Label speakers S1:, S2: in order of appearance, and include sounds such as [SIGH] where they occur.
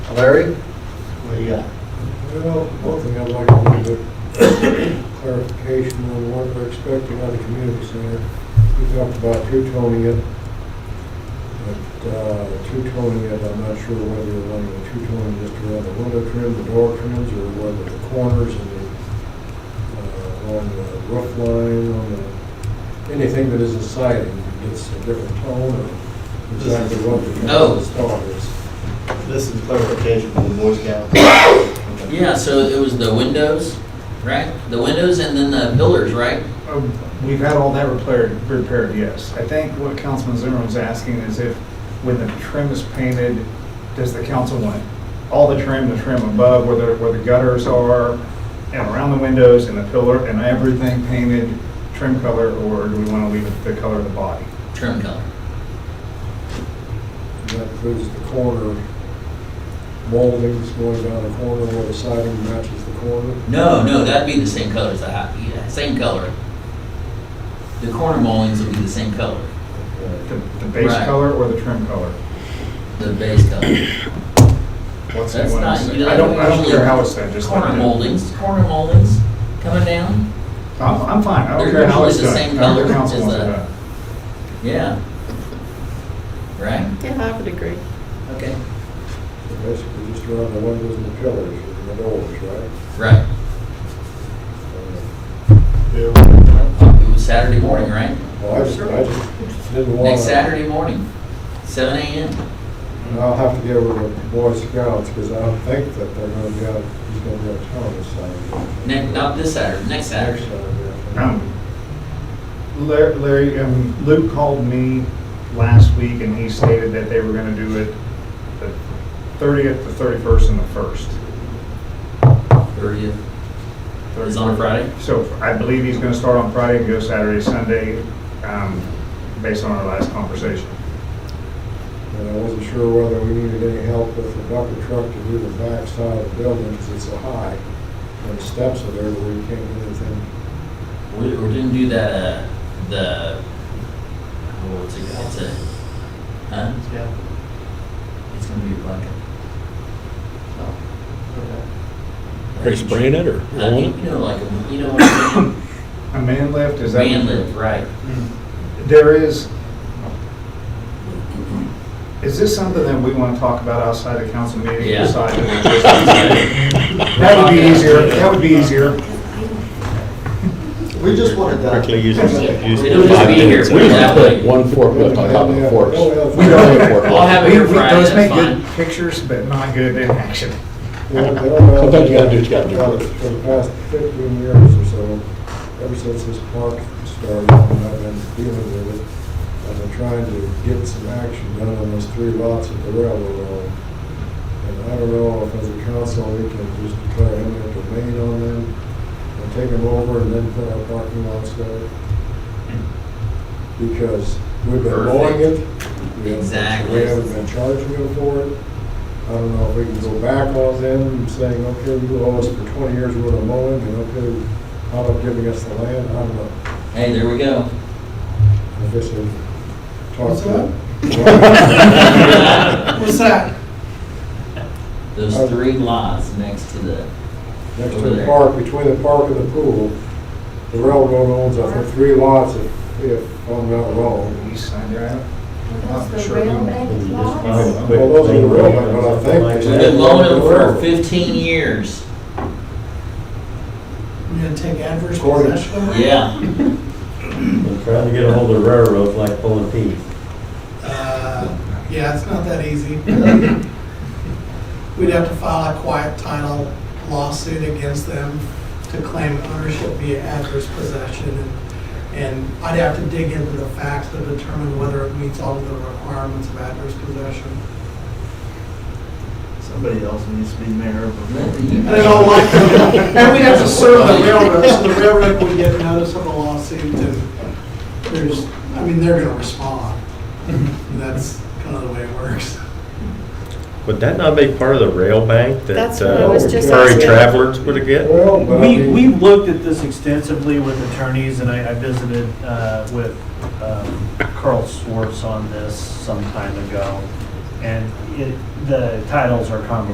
S1: Larry?
S2: What do you got?
S3: Well, one thing I'd like a little bit clarification on what we're expecting out of the community center. We talked about two-toning it, but uh, two-toning it, I'm not sure whether you're running a two-tone just around the window trim, the door trims, or whether the corners and the, uh, on the roof line, on the, anything that is a siding, gets a different tone, or exactly what the
S4: No.
S3: install is.
S2: This is clarification from the Boy Scout.
S4: Yeah, so it was the windows, right? The windows and then the pillars, right?
S5: Oh, We've had all that repaired, repaired, yes. I think what Councilman Zimmer was asking is if, when the trim is painted, does the council want all the trim, the trim above, where the, where the gutters are, and around the windows, and the pillar, and everything painted trim color, or do we want to leave it the color of the body?
S4: Trim color.
S3: And That includes the corner moldings going down the corner where the siding matches the corner.
S4: No, no, that'd be the same color as the house, yeah, same color. The corner moldings would be the same color,
S5: The, the base
S4: Right.
S5: color or the trim color?
S4: the base color.
S5: What's
S4: That's
S5: what I'm
S4: not-
S5: saying.
S4: you know,
S5: I don't, I don't
S4: usually
S5: care how it's done, just like.
S4: Corner moldings, corner moldings coming down,
S5: I'm, I'm fine, I don't
S4: They're
S5: care how
S4: usually
S5: it's
S4: the
S5: done.
S4: same
S5: However
S4: color
S5: council
S4: as
S5: wants it
S4: the-
S5: done.
S4: yeah. Right?
S6: Yeah, I would agree.
S4: Okay.
S3: Basically just around the windows and the pillars and the doors, right?
S4: Right.
S3: Uh,
S4: It was Saturday morning, right?
S3: Well, I just, I just didn't want to.
S4: Next Saturday morning, seven AM.
S3: And I'll have to get with the Boy Scouts because I don't think that they're going to be out, he's going to be out of town this Saturday.
S4: Next, not this Saturday, next
S3: Next
S4: Saturday.
S3: Saturday.
S5: Um, Larry- Larry, um, Luke called me last week and he stated that they were going to do it the 30th, the 31st, and the 1st.
S4: Thirtieth. It's on a Friday?
S5: So I believe he's going to start on Friday and go Saturday, Sunday, um, based on our last conversation.
S3: And I wasn't sure whether we needed any help with the bucket truck to do the back side of the building because it's so high. And the steps are there, but we can't do anything.
S4: We, we didn't do that, uh, the, oh, what's it called, it's a, huh?
S2: Yeah.
S4: It's gonna be a bucket.
S7: Are you spraying it or
S4: I
S7: rolling
S4: think,
S7: it?
S4: you know, like, a- you know what I mean?
S5: A man lift, is that?
S4: Man lift, right.
S5: There is, is this something that we want to talk about outside the council meeting?
S4: Yeah.
S5: Aside from That would be easier, that would be easier.
S2: We just want it done.
S7: Quickly uses, uses.
S4: It'll just be here.
S7: We just put one
S3: forklift on top of the forks.
S5: We don't-
S4: I'll have it here
S5: We- we-
S4: Friday,
S5: Those
S4: that's
S5: make
S4: fine.
S5: good pictures, but not good in action.
S3: Sometimes
S7: you gotta do what you gotta do.
S3: For the past fifteen years or so, ever since this park started, and I've been dealing with it. I've been trying to get some action done on those three lots at the railroad line. And I don't know if as a council, we can just declare eminent domain on them and take them over and then put our parking lots there. Because we've been mowing it. we haven't-
S4: Exactly.
S3: We haven't been charging them for it. I don't know if we can go back on them and saying, okay, you owe us for twenty years worth of mowing, and okay, how about giving us the land? I don't know.
S4: Hey, there we go.
S3: I guess we talk
S2: What's
S3: to them.
S2: [LAUGHS] What's that?
S4: Those three lots next to the,
S3: Next to the park, between the park and the pool, the railroad owns, I think, three lots if, if I'm not wrong.
S5: East side, right?
S8: That's
S5: Not
S8: the
S5: sure who-
S8: real bank lots.
S3: Well, those are the railroad, but I think.
S4: we've been mowing them for fifteen years.
S2: We're gonna take adverse
S3: Recorded.
S2: possession of it?
S4: Yeah,
S9: I'm Trying to get a hold of railroad like pulling teeth.
S2: Uh, Yeah, it's not that easy. We'd have to file a quiet title lawsuit against them to claim ownership via adverse possession. and- And I'd have to dig into the facts to determine whether it meets all of the requirements of adverse possession.
S10: Somebody else needs to be mayor of a
S2: And in all likelihood, and we'd have to serve the railroad, so the railroad would get notice of a lawsuit, and there's, I mean, they're gonna respond. That's kind of the way it works.
S9: Would that not be part of the rail bank that
S6: That's what I
S3: was
S9: uh,
S3: just
S9: furry
S6: asking.
S9: travelers would get?
S3: Well, but I
S10: We,
S3: mean-
S10: we looked at this extensively with attorneys, and I, I visited, uh, with, um, Carl Swartz on this some time ago. And it, the titles are convoluted.